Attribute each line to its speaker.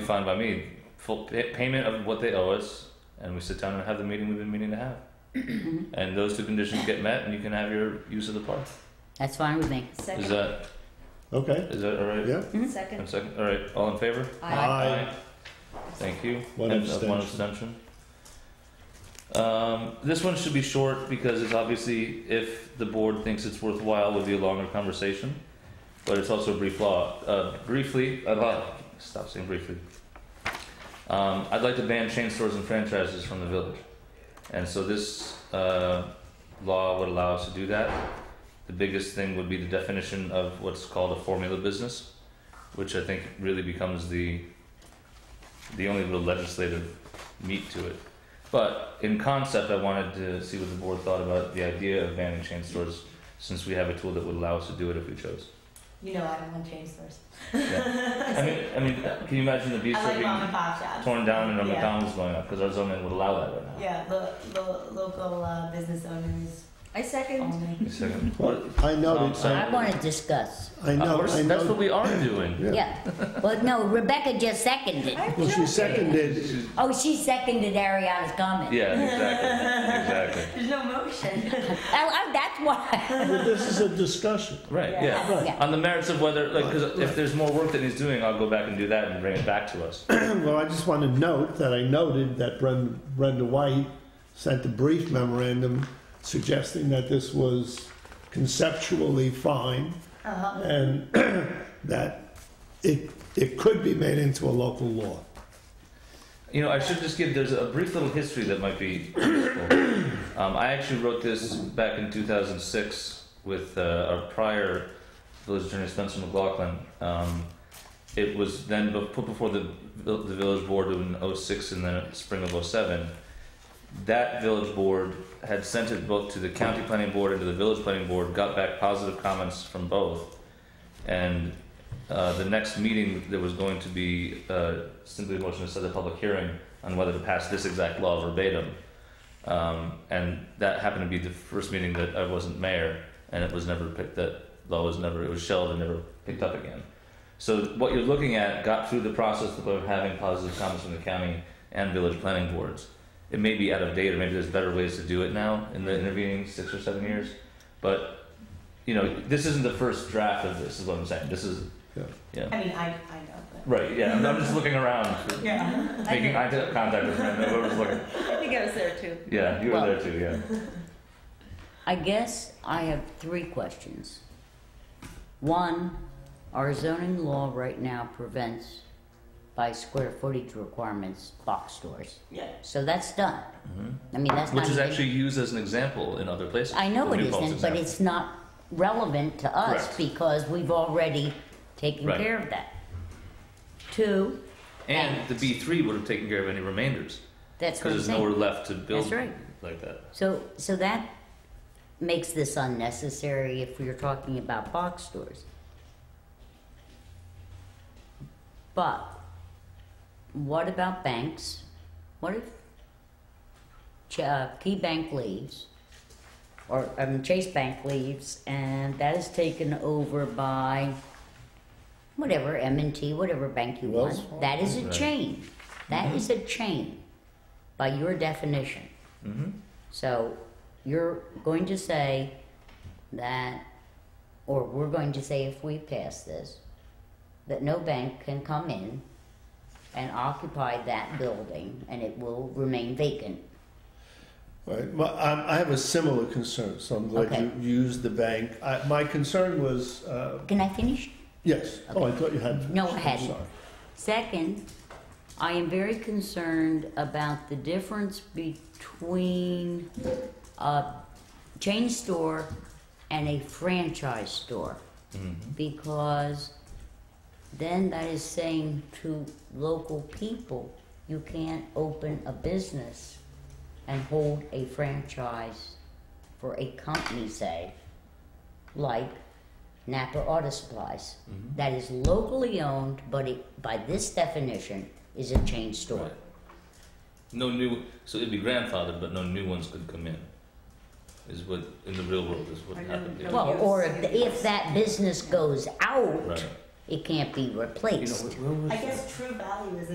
Speaker 1: fine by me. Full pay- payment of what they owe us, and we sit down and have the meeting we've been meaning to have. and those two conditions get met, and you can have your use of the park.
Speaker 2: That's fine with me.
Speaker 1: Is
Speaker 3: Second,
Speaker 1: that
Speaker 4: Okay,
Speaker 1: is that all right?
Speaker 4: yeah.
Speaker 1: One
Speaker 3: second,
Speaker 1: second. All right. All in favor?
Speaker 2: Uh,
Speaker 3: aye.
Speaker 1: Thank you.
Speaker 4: One
Speaker 1: And, uh, One
Speaker 4: abstention.
Speaker 1: abstention. Um, this one should be short because it's obviously, if the board thinks it's worthwhile, would be a longer conversation. But it's also a brief law, uh, briefly, about, stop saying briefly. Um, I'd like to ban chain stores and franchises from the village. And so this, uh, law would allow us to do that. The biggest thing would be the definition of what's called a formula business, which I think really becomes the, the only real legislative meat to it. But in concept, I wanted to see what the board thought about the idea of banning chain stores, since we have a tool that would allow us to do it if we chose.
Speaker 5: You know I don't want chain stores.
Speaker 1: I mean, I mean, can you imagine the
Speaker 5: I
Speaker 1: bistro
Speaker 5: like mom and
Speaker 1: being
Speaker 5: pop shops.
Speaker 1: torn down and a
Speaker 5: Yeah.
Speaker 1: McDonald's going up because our zoning would allow that right now?
Speaker 5: Yeah, lo- lo- local uh, business owners
Speaker 3: I second.
Speaker 5: only.
Speaker 1: Wait a second.
Speaker 4: Well,
Speaker 1: What-
Speaker 4: I noted,
Speaker 1: Um,
Speaker 2: I want to discuss.
Speaker 4: I
Speaker 1: uh,
Speaker 4: know,
Speaker 1: we're-
Speaker 4: I
Speaker 1: that's what
Speaker 4: know.
Speaker 1: we are doing.
Speaker 4: Yeah.
Speaker 2: Yeah. Well, no, Rebecca just seconded.
Speaker 4: Well, she seconded,
Speaker 2: Oh, she seconded Ariana's comment.
Speaker 1: Yeah, exactly, exactly.
Speaker 5: There's no motion.
Speaker 2: I, I, Oh, that's why.
Speaker 4: but this is a discussion.
Speaker 1: Right,
Speaker 5: Yeah.
Speaker 1: yeah.
Speaker 4: Right.
Speaker 2: Yeah.
Speaker 1: On the merits of whether, like, 'cause
Speaker 4: Right,
Speaker 1: if
Speaker 4: right.
Speaker 1: there's more work that he's doing, I'll go back and do that and bring it back to us.
Speaker 4: Well, I just want to note that I noted that Brenda, Brenda White sent a brief memorandum suggesting that this was conceptually fine
Speaker 5: Uh-huh.
Speaker 4: and that it, it could be made into a local law.
Speaker 1: You know, I should just give, there's a brief little history that might be useful. Um, I actually wrote this back in 2006 with uh, our prior village attorney, Spencer McLaughlin. Um, it was then be- put before the, vil- the village board in 06 and then spring of 07. That village board had sent it both to the county planning board and to the village planning board, got back positive comments from both. And uh, the next meeting, there was going to be uh, simply a motion to set a public hearing on whether to pass this exact law verbatim. Um, and that happened to be the first meeting that I wasn't mayor, and it was never picked. That law was never it was shelved and never picked up again. So what you're looking at got through the process of having positive comments from the county and village planning boards. It may be out of date, or maybe there's better ways to do it now in the intervening six or seven years. But you know, this isn't the first draft of this. Is what I'm saying. This is
Speaker 4: Yeah.
Speaker 1: yeah.
Speaker 5: I mean, I, I know, but.
Speaker 1: Right, yeah, I'm just looking around,
Speaker 5: Yeah.
Speaker 1: making eye contact with Brenda, whoever's looking.
Speaker 3: I think I was there too.
Speaker 1: Yeah, you were
Speaker 2: Well-
Speaker 1: there too, yeah.
Speaker 2: I guess I have three questions. One, our zoning law right now prevents by square footage requirements box stores.
Speaker 5: Yeah.
Speaker 2: So that's done. I mean, that's
Speaker 1: Mm-hmm. Which
Speaker 2: not
Speaker 1: is
Speaker 2: even-
Speaker 1: actually used as an example in other places.
Speaker 2: I know
Speaker 1: The
Speaker 2: it
Speaker 1: New Paltz
Speaker 2: isn't, but
Speaker 1: example.
Speaker 2: it's not relevant to us
Speaker 1: Correct.
Speaker 2: because we've already taken
Speaker 1: Right.
Speaker 2: care of that. Two,
Speaker 1: And the B three would have taken care of any remainders,
Speaker 2: that's
Speaker 1: because
Speaker 2: what I'm
Speaker 1: there's nowhere
Speaker 2: saying.
Speaker 1: left to build
Speaker 2: That's right.
Speaker 1: like that.
Speaker 2: So, so that makes this unnecessary if we are talking about box stores. But what about banks? What if Ch- uh, Key Bank leaves, or I mean Chase Bank leaves, and that is taken over by whatever M and T, whatever bank you
Speaker 4: Wells
Speaker 2: want. That is a
Speaker 1: Right.
Speaker 2: chain. That is a chain, by your definition.
Speaker 1: Mm-hmm.
Speaker 2: So you're going to say that, or we're going to say if we pass this, that no bank can come in and occupy that building and it will remain vacant.
Speaker 4: Right, well, I, I have a similar concern, so I'm glad
Speaker 2: Okay.
Speaker 4: you used the bank. I, my concern was, uh,
Speaker 2: Can I finish?
Speaker 4: yes, oh, I thought you had.
Speaker 2: No, I
Speaker 4: I'm
Speaker 2: hadn't.
Speaker 4: sorry.
Speaker 2: Second, I am very concerned about the difference between a chain store and a franchise store. Because then that is saying to local people, you can't open a business and hold a franchise for a company, say, like Napa Auto Supplies.
Speaker 1: Mm-hmm.
Speaker 2: that is locally owned, but it, by this definition, is a chain store.
Speaker 1: Right. No new, so it'd be grandfathered, but no new ones could come in. Is what, in the real world, is what
Speaker 5: I know,
Speaker 1: happened. yeah.
Speaker 5: no.
Speaker 2: Well,
Speaker 5: Yes,
Speaker 2: or if,
Speaker 5: yes.
Speaker 2: if that business goes out,
Speaker 1: Right.
Speaker 2: it can't be
Speaker 1: You know,
Speaker 2: replaced.
Speaker 1: where- where was
Speaker 5: I
Speaker 1: that?
Speaker 5: guess True Value is